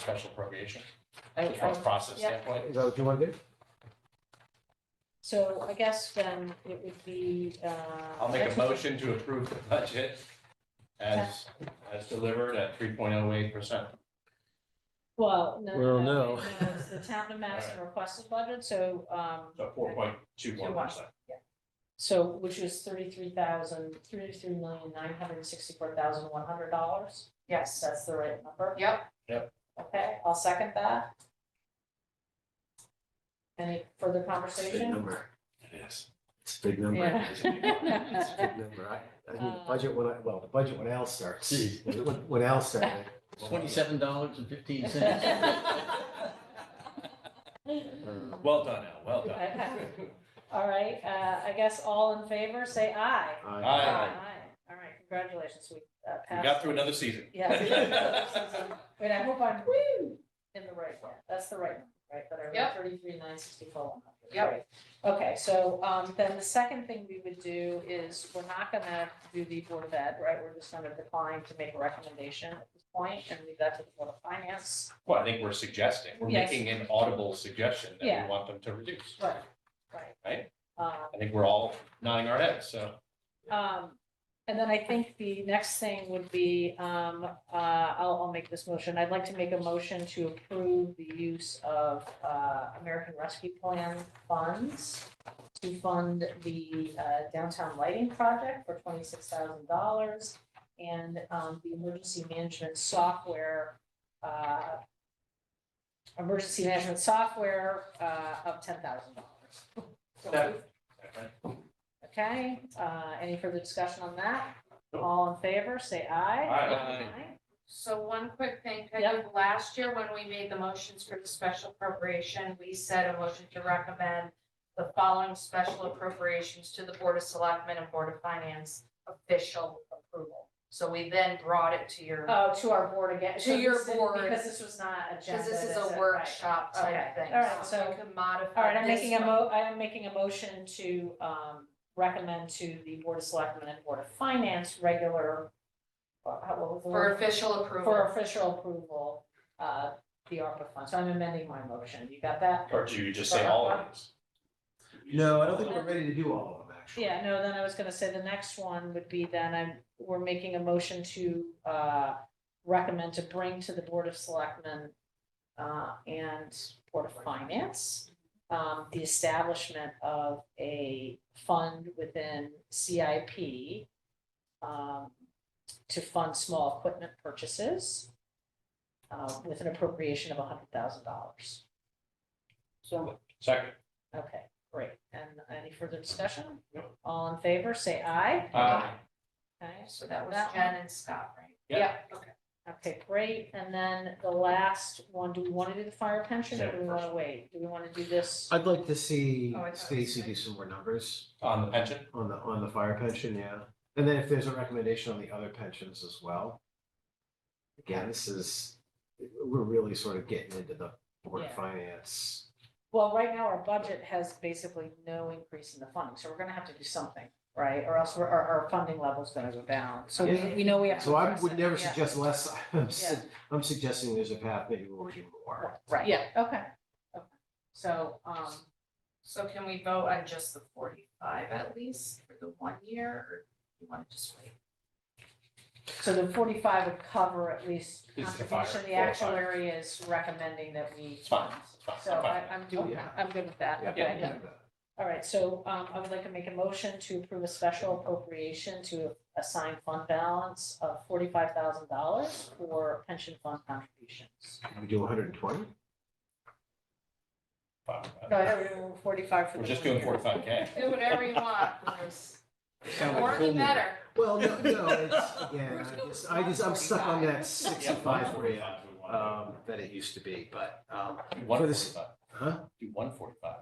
special appropriation I, from a I, process yeah. standpoint. Is that what you want to do? so I guess then it would be, uh. I'll make a motion to approve the budget as, as delivered at three point oh eight percent. Well, no. Well, no. It's the town of Madison requested budget, so, um, So four point two one percent. so, which is thirty-three thousand, thirty-three million, nine hundred and sixty-four thousand, one hundred dollars. Yes, That's the right number. yep, Okay, I'll second that. Any further conversation? number. Yes. It's a big number. It's a Yeah. big number. I, I think Uh. the budget when I, well, the budget when Al starts, when, when Al started. Twenty-seven dollars and fifteen cents. Well done, Al, well done. Okay. All right, uh, I guess all in favor, say aye. Aye. All right, congratulations, we uh, We passed. got through another season. Yeah. Wait, I hope I'm woo, in the right one, that's the right one, right, that I read Yep. thirty-three, nine sixty-four. Yep. Okay, so, um, then the second thing we would do is, we're not gonna do the Board of Ed, right, we're just gonna decline to make a recommendation at this point, and leave that to the Board of Finance. Well, I think we're suggesting, we're Yes. making an audible suggestion that Yeah. we want them to reduce. Right. Right. Right. Um, I think we're all nodding our heads, so. Um, and then I think the next thing would be, um, uh, I'll, I'll make this motion. I'd like to make a motion to approve the use of, uh, American Rescue Plan funds to fund the, uh, downtown lighting project for twenty-six thousand dollars and, um, the emergency management software, uh, emergency management software, uh, of ten thousand dollars. Second. Okay, uh, any further discussion on that? Nope. All in favor, say aye. Aye. so one quick thing, Peggy, Yep. last year when we made the motions for the special appropriation, we said a motion to recommend the following special appropriations to the Board of Selectmen and Board of Finance official approval. So we then brought it to your, Oh, to our board again. To So your this is- board. Because this was not agenda. because this is a right. workshop Okay. type thing. All right, so- You can modify. All right, I'm this making a one. mo, I am making a motion to, um, recommend to the Board of Selectmen and Board of Finance regular, uh, how- what was the For word? official For approval, official approval, uh, the ARPA fund. So I'm amending my motion. You got that? Or do you just say all of these? No, I don't think we're ready to do all of them, actually. Yeah, no, then I was gonna say the next one would be then I'm, we're making a motion to uh recommend to bring to the Board of Selectmen uh and Board of Finance um the establishment of a fund within CIP um to fund small equipment purchases uh with an appropriation of hundred thousand dollars. So, Second. okay, great. And any further discussion? No. All in favor, say aye. Aye. Okay, so so that was that Jen and Scott, right? okay, great. And then the last one, do we want to do the fire pension or do we want to wait? Do we want to do this? I'd like to see Oh, I thought it was Stacy do nice. some more numbers Uh, On the pension? on the, on the fire pension, yeah. And then if there's a recommendation on the other pensions as well. Again, this is, we're really sort of getting into the board of Yeah. finance. Well, right now our budget has basically no increase in the funding, so we're going to have to do something, right? Or else we're- our, our funding level's going to go down. So we, Yeah. we know we have to. So I address would it. never Yeah. suggest less, I'm, su- Yeah. I'm suggesting there's a path maybe we'll do more. Right, yeah, okay. okay. So, um, So can we vote on just the forty-five at least for the one year, or you wanna just wait? so the forty-five would cover at least Is the fire, contribution. The four or five. actuary is recommending that we. It's fine, it's fine, So I'm fine. I, I'm doing, Yeah. I'm good with that. Yeah. Okay. All right, so um I would like to make a motion to approve a special appropriation to assign fund balance of forty-five thousand dollars for pension fund contributions. Can We do hundred and twenty? No, I don't remember forty-five for the. We're just one doing year. forty-five K. Do whatever you want, Bruce. Sound like More the Coleman. better. Well, no, no, it's, yeah, I just, I just, I'm stuck on that sixty-five for you, um, that it used to be, but, um, One for this- forty-five, huh? do one forty-five.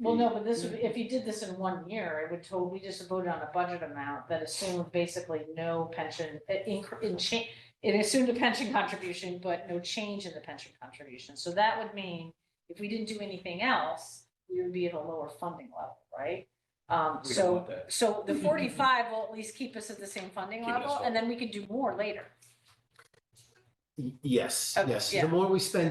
Well, no, but this would, be- if you did this in one year, it would totally, we just voted on a budget amount that assumed basically no pension, it inc- in cha- it assumed a pension contribution, but no change in the pension contribution. So that would mean if we didn't do anything else, we would be at a lower funding level, right? Um, We don't so, want that. so the forty-five will at least keep us at the same funding Keep it as level, low. and then we could do more later. Y- Yes, Okay, yes. yeah. The more we spend